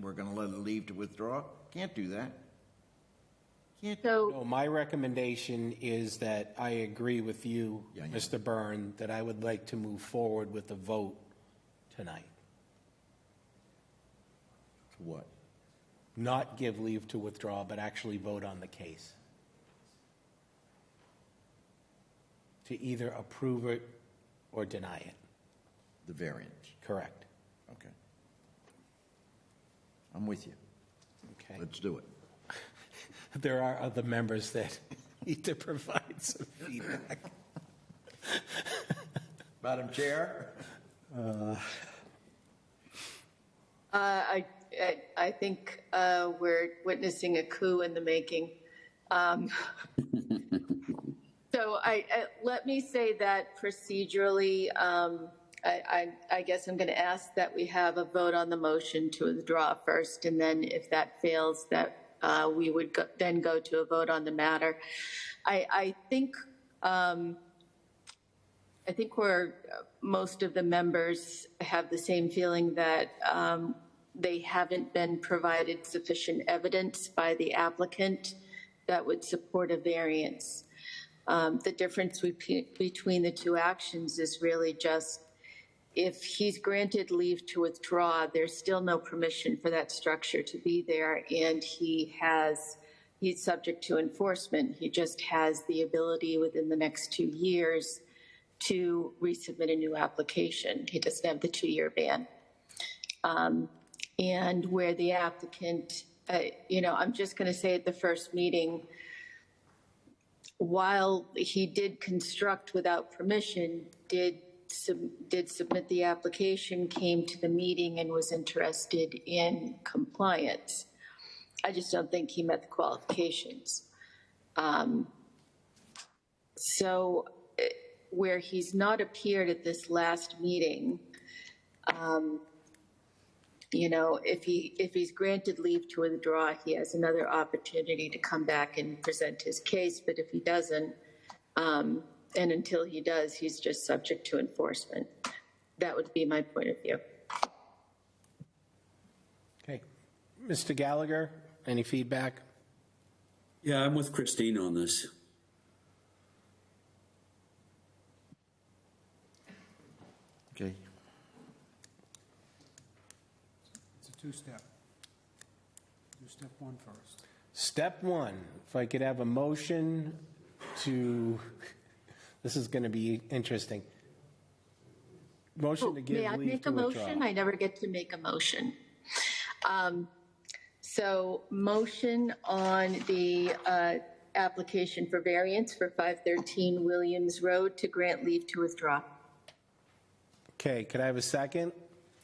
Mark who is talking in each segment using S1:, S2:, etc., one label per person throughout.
S1: we're gonna let it leave to withdraw? Can't do that. Can't,
S2: So,
S3: No, my recommendation is that I agree with you,
S1: Yeah, yeah.
S3: Mr. Byrne, that I would like to move forward with a vote tonight,
S1: what?
S3: not give leave to withdraw, but actually vote on the case. To either approve it or deny it,
S1: The variance,
S3: correct?
S1: okay. I'm with you.
S3: Okay.
S1: Let's do it.
S3: There are other members that need to provide some feedback.
S1: Madam Chair?
S2: uh, I, I- I think uh, we're witnessing a coup in the making. Um, So I, I- let me say that procedurally, um, I, I, I guess I'm going to ask that we have a vote on the motion to withdraw first, and then if that fails, that uh, we would go- then go to a vote on the matter. I, I think, um, I think we're, most of the members have the same feeling that um, they haven't been provided sufficient evidence by the applicant that would support a variance. Um, The difference we- between the two actions is really just if he's granted leave to withdraw, there's still no permission for that structure to be there, and he has, he's subject to enforcement. He just has the ability within the next two years to resubmit a new application. He doesn't have the two-year ban. Um, And where the applicant, uh, you know, I'm just going to say at the first meeting, while he did construct without permission, did, sub- did submit the application, came to the meeting and was interested in compliance. I just don't think he met the qualifications. Um, So eh, where he's not appeared at this last meeting, um, you know, if he, if he's granted leave to withdraw, he has another opportunity to come back and present his case, but if he doesn't, um, and until he does, he's just subject to enforcement. That would be my point of view.
S3: Okay. Mr. Gallagher, any feedback?
S4: Yeah, I'm with Christine on this.
S1: Okay.
S5: It's a two-step. Do step one first.
S3: Step one, if I could have a motion to, this is going to be interesting. Motion to
S2: May
S3: give
S2: I
S3: leave
S2: make a
S3: to withdraw.
S2: motion? I never get to make a motion. Um, So motion on the uh, application for variance for 513 Williams Road to grant leave to withdraw.
S3: Okay, could I have a second?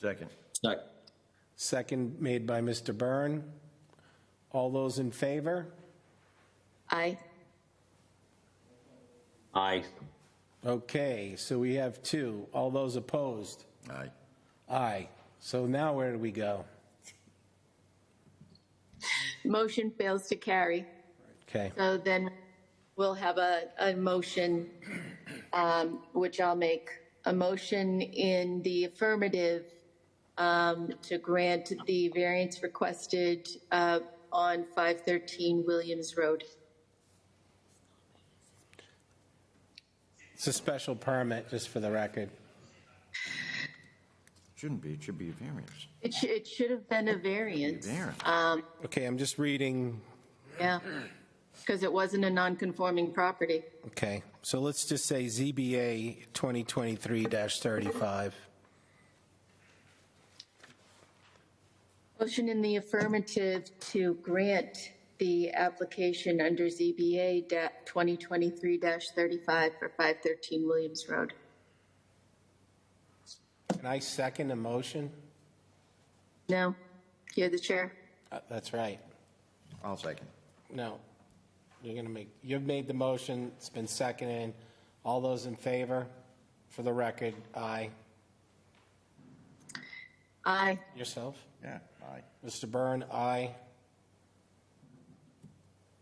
S1: Second.
S4: Sec-
S3: Second made by Mr. Byrne. All those in favor?
S2: Aye.
S4: Aye.
S3: Okay, so we have two. All those opposed?
S1: Aye.
S3: Aye. So now where do we go?
S2: Motion fails to carry.
S3: Okay,
S2: So then we'll have a, a motion, um, which I'll make, a motion in the affirmative um, to grant the variance requested uh, on 513 Williams Road.
S3: it's a special permit, just for the record.
S1: Shouldn't be, it should be a variance.
S2: It should, it should have been a variance,
S1: Variance.
S3: Okay, I'm just reading
S2: yeah, because it wasn't a non-conforming property.
S3: Okay, so let's just say ZBA 2023-35.
S2: Motion in the affirmative to grant the application under ZBA da- 2023-35 for 513 Williams Road.
S3: Can I second a motion?
S2: No, you're the chair.
S3: Uh, That's right.
S1: I'll second.
S3: No, you're going to make, you've made the motion, it's been seconded. All those in favor, for the record, aye.
S2: Aye.
S3: Yourself?
S1: Yeah, aye.
S3: Mr. Byrne, aye.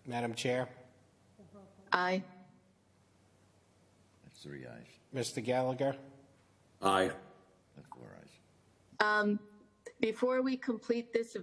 S3: Madam Chair?
S2: Aye.
S1: That's three ayes,
S3: Mr. Gallagher?
S4: Aye.
S1: that's four ayes.
S2: Before we complete this